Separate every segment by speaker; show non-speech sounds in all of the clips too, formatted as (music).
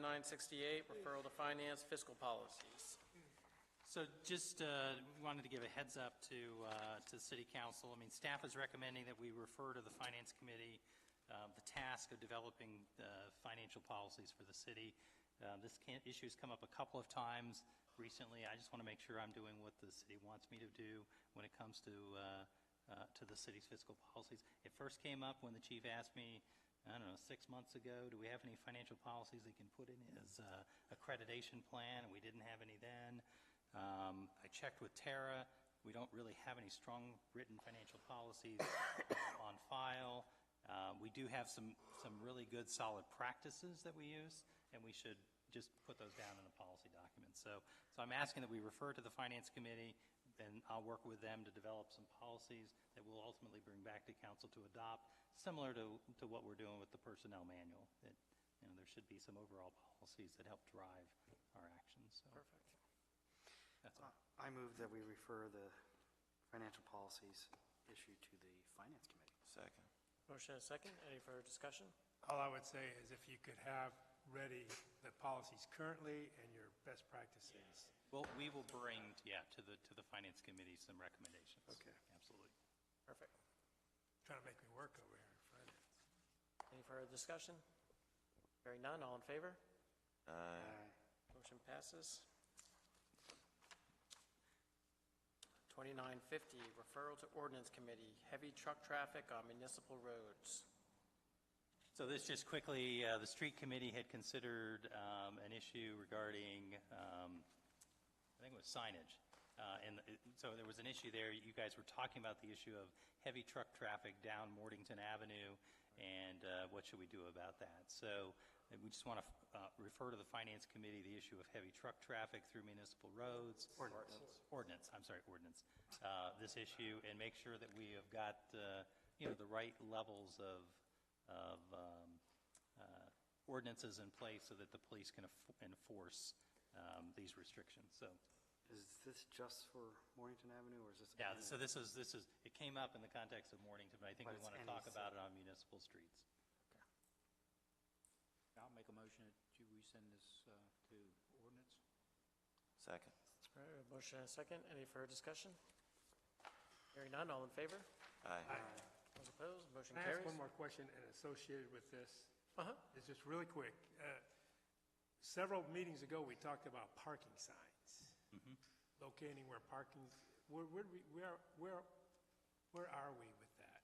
Speaker 1: 2968, referral to finance, fiscal policies.
Speaker 2: So just uh, wanted to give a heads up to, uh, to the city council. I mean, staff is recommending that we refer to the finance committee uh, the task of developing uh, financial policies for the city. Uh, This can- issue's come up a couple of times recently. I just want to make sure I'm doing what the city wants me to do when it comes to, uh, uh, to the city's fiscal policies. It first came up when the chief asked me, I don't know, six months ago, do we have any financial policies we can put in as uh, accreditation plan? And we didn't have any then. Um, I checked with Tara. We don't really have any strong written financial policies uh, on file. Uh, We do have some, some really good solid practices that we use, and we should just put those down in a policy document. So, so I'm asking that we refer to the Finance Committee, and I'll work with them to develop some policies that we'll ultimately bring back to council to adopt, similar to, to what we're doing with the Personnel Manual. That, you know, there should be some overall policies that help drive our actions, so
Speaker 1: Perfect.
Speaker 2: that's all.
Speaker 3: I move that we refer the financial policies issue to the Finance Committee.
Speaker 4: Second.
Speaker 1: Motion and a second. Any further discussion?
Speaker 5: All I would say is if you could have ready the policies currently and your best practices.
Speaker 2: Well, we will bring, yeah, to the, to the Finance Committee some recommendations.
Speaker 5: Okay.
Speaker 2: Absolutely.
Speaker 1: Perfect.
Speaker 5: Trying to make me work over here in finance.
Speaker 1: Any further discussion? Hearing none, all in favor?
Speaker 4: Aye.
Speaker 3: Uh,
Speaker 1: Motion passes. 2950, referral to ordinance committee, heavy truck traffic on municipal roads.
Speaker 2: So this, just quickly, uh, the street committee had considered um, an issue regarding, um, I think it was signage. Uh, And it- so there was an issue there, you guys were talking about the issue of heavy truck traffic down Mortington Avenue, and uh, what should we do about that? So uh, we just want to refer to the finance committee the issue of heavy truck traffic through municipal roads.
Speaker 3: Ordinance.
Speaker 2: Ordinance, I'm sorry, ordinance, uh, this issue, and make sure that we have got, uh, you know, the right levels of, of um, uh, ordinances in place so that the police can enf- enforce um, these restrictions. So,
Speaker 3: Is this just for Mornington Avenue, or is this?
Speaker 2: yeah, so this is, this is, it came up in the context of Mornington, but I think
Speaker 3: But
Speaker 2: we
Speaker 3: it's
Speaker 2: want to
Speaker 3: any
Speaker 2: talk
Speaker 3: city.
Speaker 2: about it on municipal streets.
Speaker 6: I'll make a motion that you- we send this uh, to ordinance.
Speaker 4: Second.
Speaker 1: All right, motion and a second. Any further discussion? Hearing none, all in favor?
Speaker 4: Aye.
Speaker 1: Those opposed, motion
Speaker 5: Can I ask
Speaker 1: carries.
Speaker 5: one more question and associated with this?
Speaker 1: Uh-huh.
Speaker 5: It's just really quick. Uh, Several meetings ago, we talked about parking signs. Locating where parking, where, where, do we- where, where where are we with that?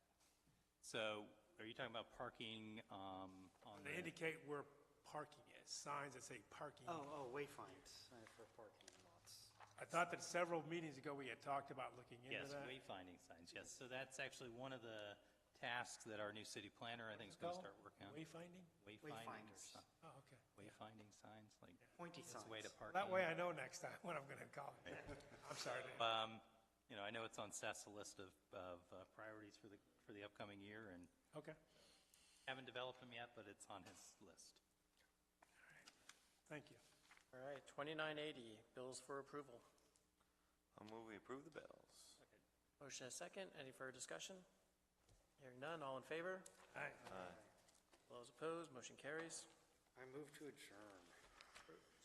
Speaker 2: So are you talking about parking um, on
Speaker 5: They
Speaker 2: the,
Speaker 5: indicate where parking is, signs that say parking.
Speaker 3: Oh, oh, wayfinds uh, for parking lots.
Speaker 5: I thought that several meetings ago, we had talked about looking into
Speaker 2: yes,
Speaker 5: that.
Speaker 2: wayfinding signs, yes. So that's actually one of the tasks that our new city planner, I think, is going to
Speaker 5: Called?
Speaker 2: start working on.
Speaker 5: Wayfinding?
Speaker 2: Wayfinding,
Speaker 3: Wayfinders.
Speaker 2: si-
Speaker 5: Oh, okay.
Speaker 2: wayfinding signs, like,
Speaker 3: Pointy
Speaker 2: it's way to parking.
Speaker 3: signs.
Speaker 5: That way I know next time (laughs) what I'm going to call it. I'm sorry. to-
Speaker 2: Um, You know, I know it's on Seth's list of, of uh, priorities for the, for the upcoming year, and
Speaker 5: Okay,
Speaker 2: haven't developed them yet, but it's on his list.
Speaker 5: thank you.
Speaker 1: All right, 2980, bills for approval.
Speaker 4: I'll move we approve the bills.
Speaker 1: Motion and a second. Any further discussion? Hearing none, all in favor?
Speaker 5: All right.
Speaker 4: Aye.
Speaker 1: Those opposed, motion carries.
Speaker 3: I move to adjourn.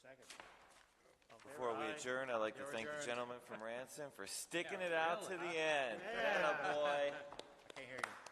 Speaker 6: Second.
Speaker 1: All in favor?
Speaker 4: Before we
Speaker 1: Aye.
Speaker 4: adjourn, I'd like to
Speaker 1: You're
Speaker 4: thank the
Speaker 1: adjourned.
Speaker 4: gentleman from Ransom for sticking it out to the end. Yeah, boy.
Speaker 6: I can't hear you.